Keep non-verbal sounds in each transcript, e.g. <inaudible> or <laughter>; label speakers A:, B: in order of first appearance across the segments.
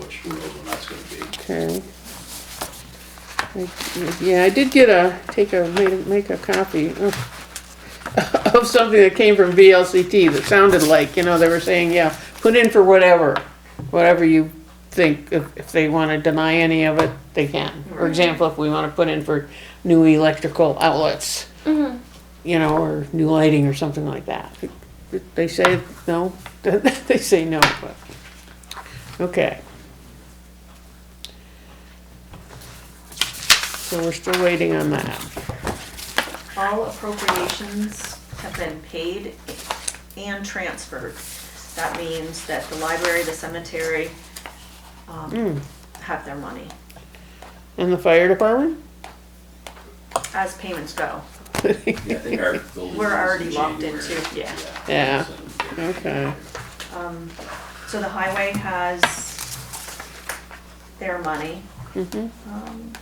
A: which who knows when that's gonna be.
B: <laughs> Okay. I- Yeah, I did get a, take a, made a- make a copy of of <laughs> something that came from VLCT that sounded like, you know, they were saying, yeah, put in for whatever, whatever you think, if, if they wanna deny any of it, they can. For example, if we wanna put in for new electrical outlets, you know, or new lighting or something like that. They say no, <laughs> they say no, but, okay. So we're still waiting on that.
C: All appropriations have been paid and transferred. That means that the library, the cemetery, um, have their money
B: And the fire department?
C: as payments go.
A: Yeah, I think our building
C: We're
A: is in
C: already locked
A: January.
C: into, yeah.
B: Yeah.
A: so-
B: Okay.
C: Um, so the highway has their money.
B: Mhm.
C: Um,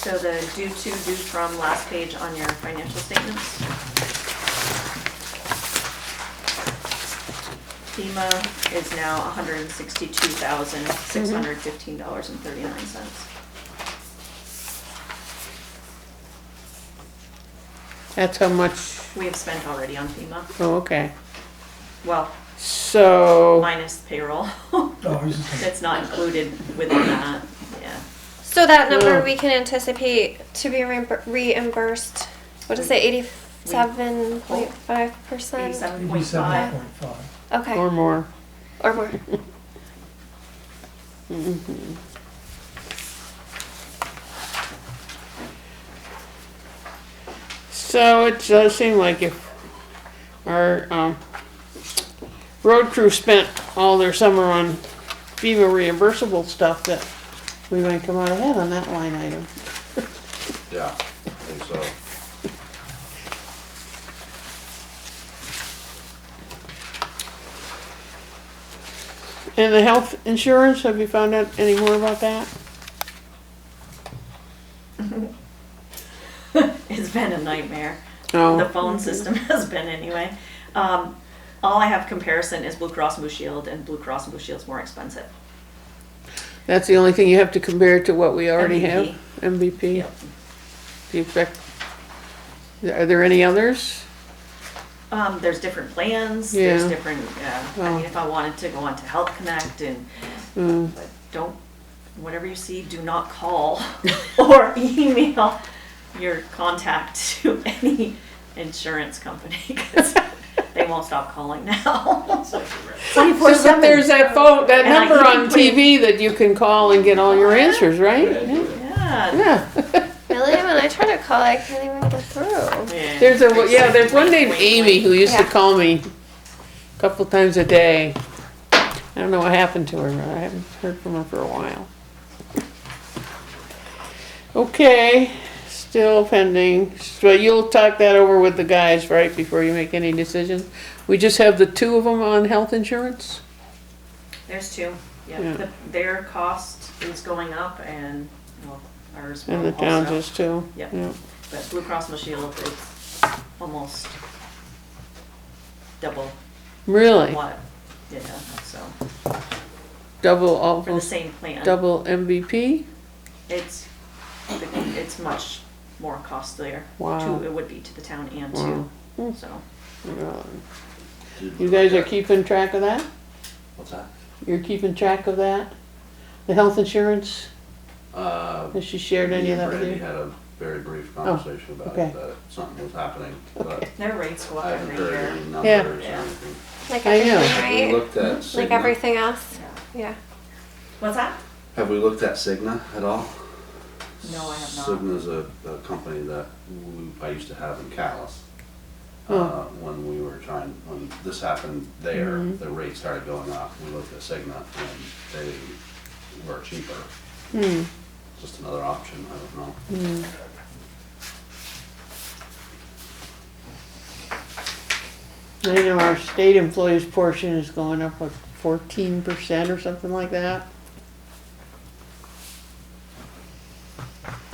C: So the due to, due from last page on your financial statements. FEMA is now hundred and sixty-two thousand, six hundred fifteen dollars and thirty-nine cents.
B: That's how much,
C: We have spent already on FEMA,
B: oh, okay.
C: well,
B: So,
C: minus payroll. <laughs>
D: Oh, he's just
C: That's not included within that, yeah.
E: So that number
B: Oh.
E: we can anticipate to be reimbur- reimbursed, what is it, eighty-seven point five percent?
C: Eighty-seven point
D: eighty-seven
C: five,
D: point five.
E: Okay,
B: or more.
E: or more.
B: So it does seem like if our, um, road crew spent all their summer on FEMA reimbursable stuff that we might come out ahead on that line item.
A: Yeah, I think so.
B: And the health insurance, have you found out any more about that?
C: it's been a nightmare. The
B: No.
C: phone system <laughs> has been anyway. Um, all I have comparison is Blue Cross Blue Shield, and Blue Cross Blue Shield's more expensive.
B: That's the only thing you have to compare it to what we already have? MVP?
C: Yep.
B: Do you expect, are there any others?
C: Um, there's different plans,
B: Yeah.
C: there's different, uh, I
B: Well.
C: mean, if I wanted to go on to Health Connect and,
B: Mm.
C: but don't, whatever you see, do not call <laughs> or email your contact to any insurance company, because they won't stop calling now.
B: So that there's that phone, that
C: And I
B: number
C: can
B: on
C: put it-
B: TV that you can call and get all your answers, right?
A: Yeah,
C: <laughs> Yeah,
B: Yeah,
E: Really, when I try to call, I can't even get through.
C: Yeah.
B: there's a, yeah, there's one named Amy who used to
E: Yeah.
B: call me a couple times a day. I don't know what happened to her, I haven't heard from her for a while. Okay, still pending, so you'll talk that over with the guys, right, before you make any decisions? We just have the two of them on health insurance?
C: There's two,
B: Yeah.
C: yeah, The- their cost is going up and, well, ours will
B: And
C: also.
B: the towns is too?
C: Yep.
B: Yeah.
C: But Blue Cross Blue Shield is almost double
B: Really?
C: what, yeah, so,
B: Double,
C: for the
B: almost
C: same plan.
B: double MVP?
C: It's, it's much more costlier.
B: Wow.
C: To, it would be to the town and
B: Wow. Hmm.
C: to, so.
A: did-
B: You guys are keeping track of that?
A: What's that?
B: You're keeping track of that? The health insurance?
A: Uh,
B: Has she shared any of that with
A: Brandy
B: you?
A: had a very brief conversation about
B: okay.
A: it, that something was happening, but
C: Their rates go up
A: I haven't
C: every
A: heard
C: year.
A: any
B: Yeah.
A: numbers or
C: Yeah.
A: anything.
E: Like
B: I
A: Have
B: know.
A: we
E: everything, right?
A: looked at
E: Like
A: Cigna?
E: everything else, yeah.
C: What's that?
A: Have we looked at Cigna at all?
C: No, I have not.
A: Cigna's a, a company that we- I used to have in Callis.
B: Oh.
A: Uh, when we were trying, when this happened there, the rate started going up. We looked at Cigna and they were cheaper.
B: Hmm,
A: Just another option, I don't know.
B: I know our state employees portion is going up like fourteen percent or something like that.